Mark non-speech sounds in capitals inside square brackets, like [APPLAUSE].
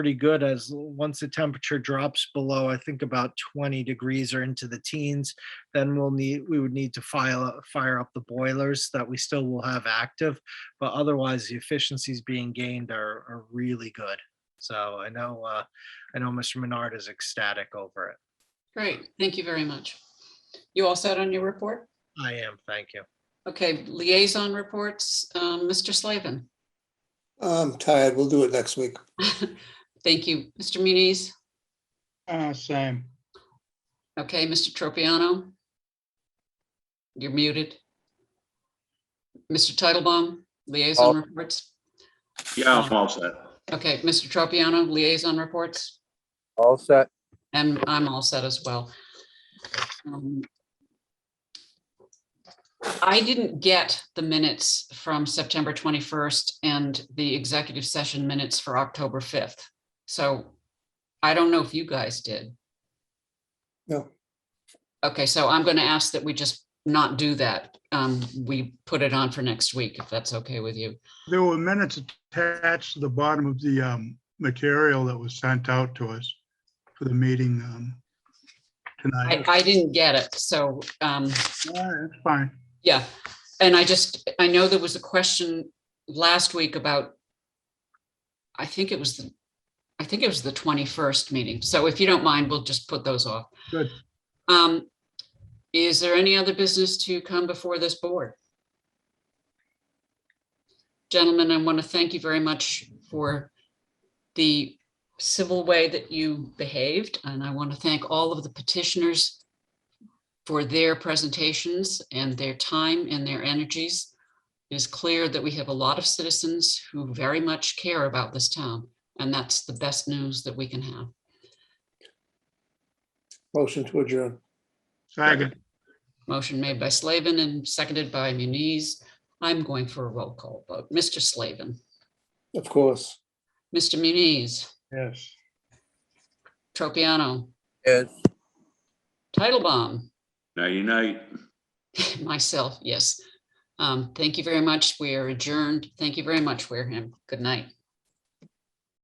pretty good as once the temperature drops below, I think about 20 degrees or into the teens, then we'll need, we would need to file, fire up the boilers that we still will have active. But otherwise, the efficiencies being gained are, are really good. So I know, uh, I know Mr. Menard is ecstatic over it. Great, thank you very much. You all set on your report? I am, thank you. Okay, liaison reports, um, Mr. Slavin. [LAUGHS] I'm tired. We'll do it next week. Thank you, Mr. Muniz. Uh, same. Okay, Mr. Tropiano. You're muted. Mr. Titlebaum, liaison reports. Uh, Yeah, I'm all set. Okay, Mr. Tropiano, liaison reports, All set. and I'm all set as well. Um, I didn't get the minutes from September 21st and the executive session minutes for October 5th. So I don't know if you guys did. No, Okay, so I'm going to ask that we just not do that. Um, We put it on for next week, if that's okay with you. There were minutes attached to the bottom of the um, material that was sent out to us for the meeting um, I, tonight. I didn't get it, so um, All right, That's fine. Yeah, and I just, I know there was a question last week about, I think it was, the I think it was the 21st meeting. So if you don't mind, we'll just put those off. Good. Um, Is there any other business to come before this board? Gentlemen, I want to thank you very much for the civil way that you behaved, and I want to thank all of the petitioners for their presentations and their time and their energies. It is clear that we have a lot of citizens who very much care about this town, and that's the best news that we can have. motion to adjourn. Second. Motion made by Slavin and seconded by Muniz. I'm going for a roll call vote. Mr. Slavin, Of course. Mr. Muniz, Yes. Tropiano, Yes. Titlebaum, [LAUGHS] Nighty night. myself, yes. Um, Thank you very much. We are adjourned. Thank you very much, Wareham. Good night.